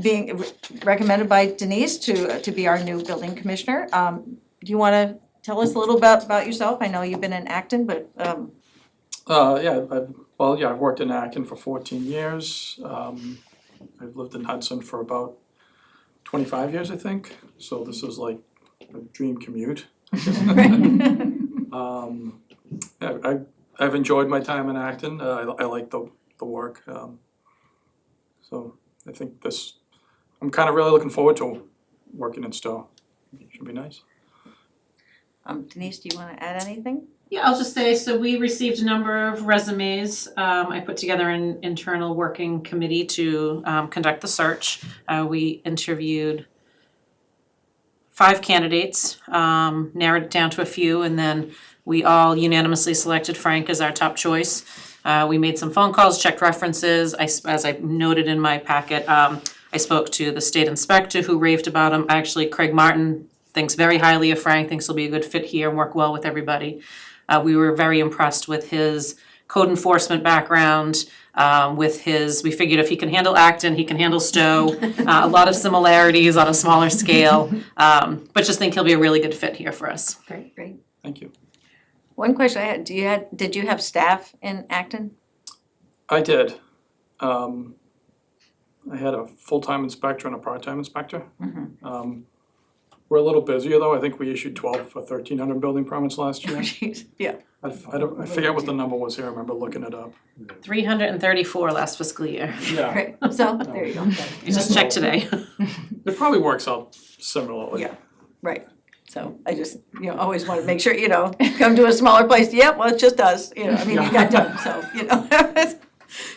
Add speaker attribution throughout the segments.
Speaker 1: being recommended by Denise to, to be our new building commissioner. Um, do you wanna tell us a little about, about yourself? I know you've been in Acton, but, um,
Speaker 2: Uh, yeah, I've, well, yeah, I've worked in Acton for fourteen years. Um, I've lived in Hudson for about twenty-five years, I think, so this is like a dream commute. Um, yeah, I, I've enjoyed my time in Acton, uh, I, I like the, the work, um, so I think this, I'm kinda really looking forward to working in Stowe. Should be nice.
Speaker 1: um, Denise, do you wanna add anything?
Speaker 3: Yeah, I'll just say, so we received a number of resumes. Um, I put together an internal working committee to um, conduct the search. Uh, we interviewed five candidates, um, narrowed it down to a few, and then we all unanimously selected Frank as our top choice. Uh, we made some phone calls, checked references. I, s- as I noted in my packet, um, I spoke to the state inspector who raved about him. Actually, Craig Martin thinks very highly of Frank, thinks he'll be a good fit here and work well with everybody. Uh, we were very impressed with his code enforcement background, um, with his, we figured if he can handle Acton, he can handle Stowe. Uh, a lot of similarities on a smaller scale, um, but just think he'll be a really good fit here for us.
Speaker 1: Great, great.
Speaker 2: Thank you.
Speaker 1: One question I had, do you had, did you have staff in Acton?
Speaker 2: I did. Um, I had a full-time inspector and a part-time inspector.
Speaker 3: Mm-hmm.
Speaker 2: Um, we're a little busier though, I think we issued twelve or thirteen hundred building permits last year.
Speaker 1: Yeah,
Speaker 2: I, f- I don't, I forget what the number was here, I remember looking it up.
Speaker 3: Three hundred and thirty-four last fiscal year.
Speaker 2: Yeah,
Speaker 1: great, so, there you go,
Speaker 3: I just checked today.
Speaker 2: it probably works out similarly.
Speaker 1: Yeah. right. So I just, you know, always wanna make sure, you know, come to a smaller place, yep, well, it's just us, you know, I mean, you got done, so, you know.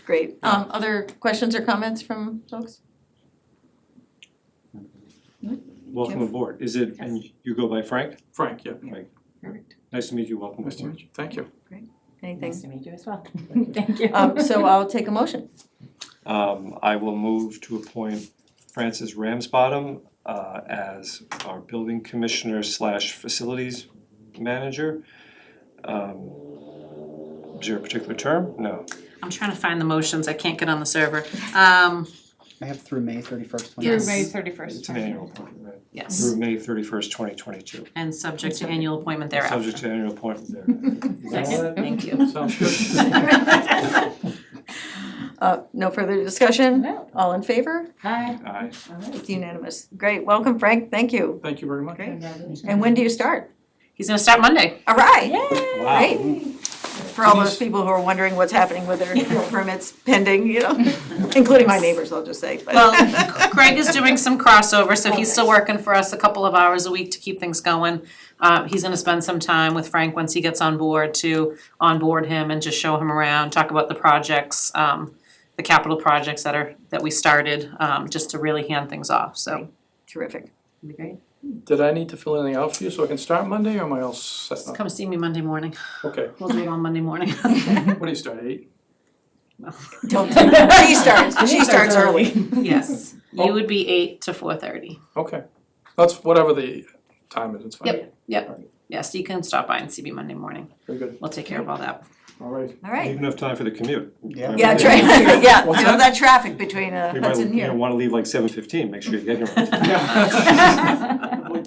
Speaker 1: Great, um, other questions or comments from folks?
Speaker 4: Welcome aboard. Is it, and you go by Frank?
Speaker 2: Frank, yeah,
Speaker 5: Perfect.
Speaker 4: Nice to meet you, welcome
Speaker 2: nice to
Speaker 4: aboard.
Speaker 2: meet you, thank you.
Speaker 5: Nice
Speaker 1: Anything?
Speaker 5: to meet you as well. Thank you.
Speaker 1: Um, so I'll take a motion.
Speaker 4: Um, I will move to appoint Francis Ramsbottom uh as our building commissioner slash facilities manager. Um, is there a particular term? No.
Speaker 3: I'm trying to find the motions, I can't get on the server. Um,
Speaker 6: I have through May thirty-first, twenty.
Speaker 3: Yes. May
Speaker 4: It's
Speaker 5: thirty-first.
Speaker 4: an annual appointment, right?
Speaker 3: yes,
Speaker 4: Through May thirty-first, twenty twenty-two.
Speaker 3: and subject to annual appointment thereafter.
Speaker 4: Subject to annual appointment there.
Speaker 3: Second, thank you.
Speaker 2: Sounds good.
Speaker 1: Uh, no further discussion?
Speaker 5: No.
Speaker 1: All in favor?
Speaker 5: Hi.
Speaker 4: Aye.
Speaker 5: All right.
Speaker 1: It's unanimous. Great, welcome Frank, thank you.
Speaker 2: Thank you very much.
Speaker 1: Great.
Speaker 5: Congratulations.
Speaker 1: And when do you start?
Speaker 3: He's gonna start Monday.
Speaker 1: All right,
Speaker 5: Yay.
Speaker 4: Wow.
Speaker 1: great. For all those people who are wondering what's happening with their permits pending, you know, including my neighbors, I'll just say, but.
Speaker 3: Well, Craig is doing some crossover, so he's still working for us a couple of hours a week to keep things going. Uh, he's gonna spend some time with Frank once he gets on board to onboard him and just show him around, talk about the projects, um, the capital projects that are, that we started, um, just to really hand things off, so.
Speaker 1: Terrific.
Speaker 3: it'll be great.
Speaker 2: Did I need to fill anything out for you so I can start Monday or am I all set
Speaker 3: Just
Speaker 2: up?
Speaker 3: come see me Monday morning.
Speaker 2: Okay,
Speaker 3: We'll do it on Monday morning.
Speaker 2: what do you start, eight?
Speaker 1: Don't, she starts, she starts
Speaker 5: Denise starts early.
Speaker 1: early.
Speaker 3: Yes, you would be eight to four thirty.
Speaker 2: Okay, that's whatever the time is, it's fine.
Speaker 3: Yep. Yes, you can stop by and see me Monday morning.
Speaker 2: Very good,
Speaker 3: We'll take care of all that.
Speaker 2: all right.
Speaker 1: All right.
Speaker 4: Even enough time for the commute.
Speaker 6: Yeah.
Speaker 1: Yeah, that's right, yeah,
Speaker 2: What's
Speaker 1: you know,
Speaker 2: that?
Speaker 1: that traffic between uh,
Speaker 4: You might,
Speaker 1: Hudson
Speaker 4: you know,
Speaker 1: here.
Speaker 4: wanna leave like seven fifteen, make sure you get here. on time.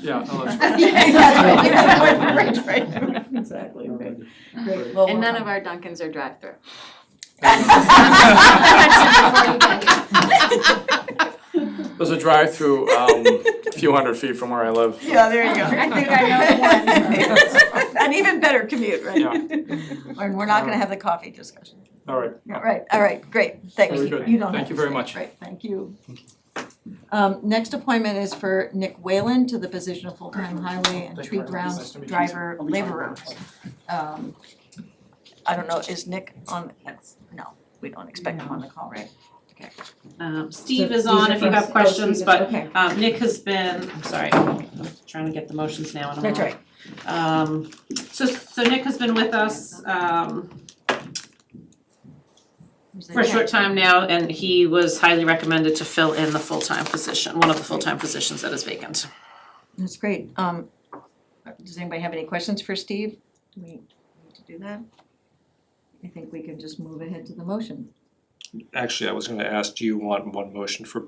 Speaker 2: Yeah, no, that's
Speaker 1: Yeah,
Speaker 2: fine.
Speaker 1: that's right. Right, right.
Speaker 5: Exactly. okay.
Speaker 1: Great. Well,
Speaker 7: And none of our Dunkins are drive-through.
Speaker 2: There's a drive-through, um, a few hundred feet from where I live.
Speaker 1: Yeah, there you go.
Speaker 7: I think I
Speaker 1: know one. An even better commute, right?
Speaker 2: Yeah.
Speaker 1: And we're not gonna have the coffee discussion.
Speaker 2: All right.
Speaker 1: All right, all right, great, thanks.
Speaker 2: Very good.
Speaker 1: You don't
Speaker 2: Thank
Speaker 1: have
Speaker 2: you
Speaker 1: to
Speaker 2: very
Speaker 1: stay.
Speaker 2: much.
Speaker 1: Right, thank you. Um, next appointment is for Nick Whalen to the position of full-time highway and
Speaker 2: Thank you
Speaker 1: tree
Speaker 2: very much.
Speaker 1: ground
Speaker 2: Nice to meet you.
Speaker 1: driver laborer. Um, I don't know, is Nick on, no, we don't expect him on the call, right?
Speaker 3: Um, Steve
Speaker 5: So
Speaker 3: is
Speaker 5: these
Speaker 3: on
Speaker 5: are
Speaker 3: if you
Speaker 5: from-
Speaker 3: have
Speaker 5: oh,
Speaker 3: questions,
Speaker 5: Steve is-
Speaker 3: but
Speaker 1: Okay,
Speaker 3: Um, Nick has been, I'm sorry, I'm trying to get the motions now and I'm
Speaker 1: that's
Speaker 3: all-
Speaker 1: right.
Speaker 3: Um, so, so Nick has been with us, um, for a short time now and he was highly recommended to fill in the full-time position, one of the full-time positions that is vacant.
Speaker 1: That's great. Um, does anybody have any questions for Steve? Do we need to do that? I think we can just move ahead to the motion.
Speaker 4: actually, I was gonna ask, do you want one motion for